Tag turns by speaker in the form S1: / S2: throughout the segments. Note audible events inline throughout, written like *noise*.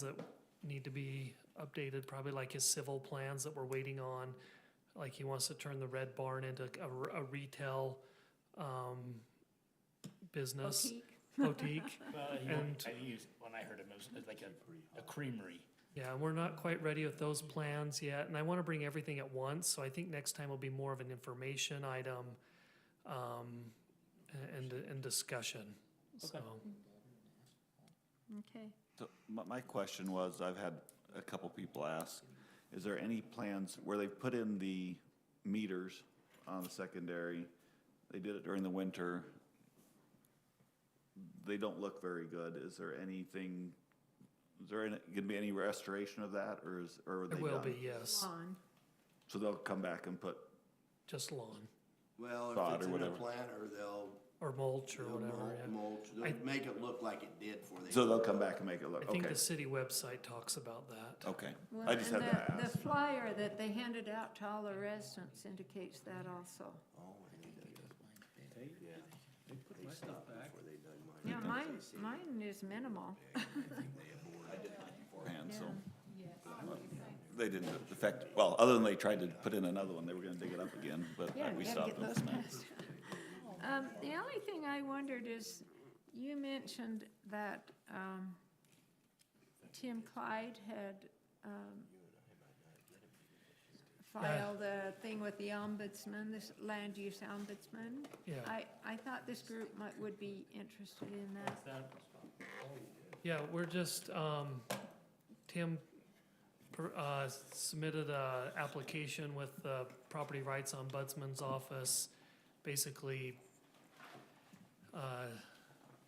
S1: that need to be updated, probably like his civil plans that we're waiting on. Like he wants to turn the red barn into a, r- a retail, um, business
S2: Boutique.
S1: boutique.
S3: Well, he-
S1: And-
S3: I think he was, when I heard him, it was like a, a creamery.
S1: Yeah, and we're not quite ready with those plans yet, and I want to bring everything at once, so I think next time will be more of an information item, um, a- and, and discussion, so.
S2: Okay.
S4: So my, my question was, I've had a couple people ask, is there any plans where they've put in the meters on the secondary? They did it during the winter. They don't look very good. Is there anything, is there any- gonna be any restoration of that or is, or are they
S1: It
S4: done?
S1: will be, yes,
S2: Lawn.
S4: So they'll come back and put,
S1: just lawn,
S5: Well,
S4: Sod
S5: if it's
S4: or
S5: in a
S4: whatever.
S5: planter, they'll,
S1: or mulch or
S5: they'll
S1: whatever, yeah.
S5: mul- mulch,
S1: I-
S5: they'll make it look like it did for they.
S4: so they'll come back and make it look,
S1: I think
S4: okay, Oh.
S1: the city website talks about that.
S4: okay.
S2: Well,
S4: I just had
S2: and
S4: to
S2: the-
S4: ask.
S2: The flyer that they handed out to all the residents indicates that also.
S5: Oh, I think they did. Yeah,
S6: They put
S5: they
S6: my stuff
S5: stopped
S6: back.
S5: before they done
S2: Yeah,
S5: mine.
S2: mine, mine is minimal.
S4: beforehand, so. They didn't affect, well, other than they tried to put in another one, they were gonna dig it up again, but
S2: Yeah,
S4: we
S2: you gotta get
S4: stopped them.
S2: those passed. *laughs* Um, the only thing I wondered is, you mentioned that, um, Tim Clyde had, um, filed a thing with the ombudsman, this land use ombudsman.
S1: Yeah.
S2: I, I thought this group might, would be interested in that.
S1: Yeah, we're just, um, Tim, per- uh, submitted a application with the Property Rights Ombudsman's Office, basically, uh,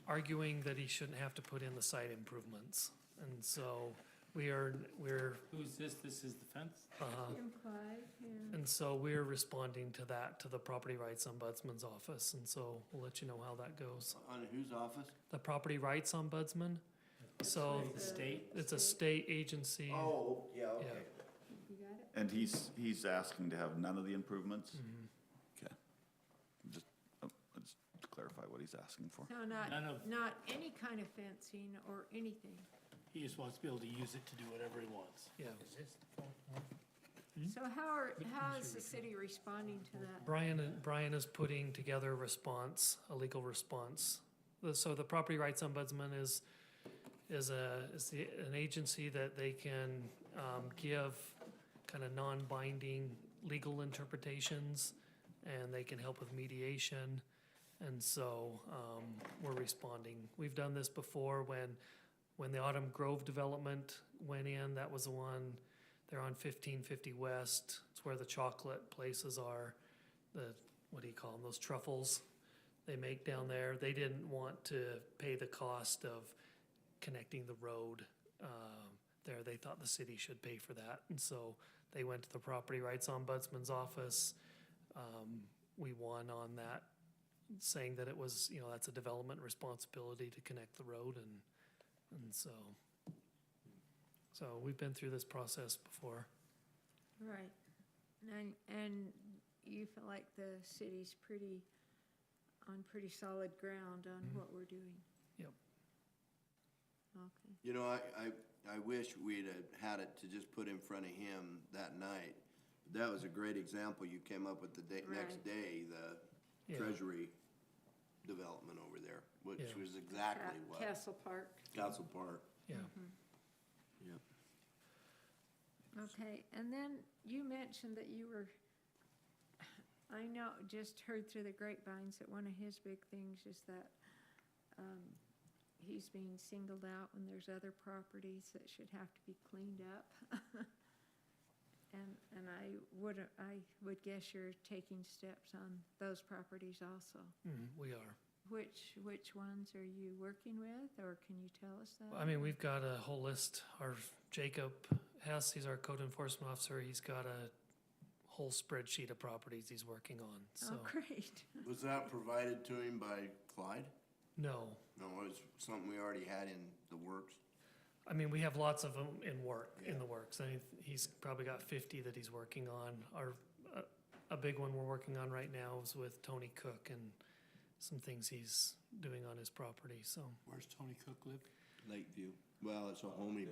S1: arguing that he shouldn't have to put in the site improvements. And so we are, we're,
S6: Who's this? This is the fence?
S1: uh,
S2: Tim Clyde, yeah.
S1: and so we're responding to that, to the Property Rights Ombudsman's Office, and so we'll let you know how that goes.
S5: On whose office?
S1: The Property Rights Ombudsman, so
S6: The state?
S1: it's a state agency.
S5: Oh, yeah, okay.
S2: You got it?
S4: And he's, he's asking to have none of the improvements? Okay. Just, uh, let's clarify what he's asking for.
S2: No, not,
S6: None of-
S2: not any kind of fencing or anything.
S3: He just wants to be able to use it to do whatever he wants.
S1: Yeah,
S2: So how are, how is the city responding to that?
S1: Brian, uh, Brian is putting together a response, a legal response. The- So the property rights ombudsman is, is a, is the, an agency that they can, um, give kind of non-binding legal interpretations, and they can help with mediation. And so, um, we're responding. We've done this before when, when the Autumn Grove development went in, that was the one, they're on fifteen fifty west, it's where the chocolate places are, the, what do you call them, those truffles they make down there. They didn't want to pay the cost of connecting the road, um, there. They thought the city should pay for that. And so they went to the Property Rights Ombudsman's office. Um, we won on that, saying that it was, you know, that's a development responsibility to connect the road and, and so. So we've been through this process before.
S2: Right. And, and you feel like the city's pretty, on pretty solid ground on what we're doing?
S1: Yep.
S2: Okay.
S5: You know, I, I, I wish we'd have had it to just put in front of him that night. That was a great example you came up with the day,
S2: Right.
S5: next day, the
S1: Yeah.
S5: treasury development over there, which
S1: Yeah.
S5: was exactly
S2: Ca-
S5: what
S2: Castle Park.
S5: Council Park.
S1: Yeah.
S5: Yep.
S2: Okay, and then you mentioned that you were, I know, just heard through the grapevines that one of his big things is that um, he's being singled out when there's other properties that should have to be cleaned up. *laughs* And, and I would, I would guess you're taking steps on those properties also.
S1: Mhm, we are.
S2: Which, which ones are you working with, or can you tell us that?
S1: I mean, we've got a whole list. Our Jacob Hess, he's our code enforcement officer. He's got a whole spreadsheet of properties he's working on. So,
S2: Oh, great.
S5: Was that provided to him by Clyde?
S1: no.
S5: No, it was something we already had in the works.
S1: I mean, we have lots of them in work, in the works. I mean, he's probably got 50 that he's working on. Our, a, a big one we're working on right now is with Tony Cook and some things he's doing on his property. So,
S3: Where's Tony Cook live?
S5: Lakeview. Well, it's a homie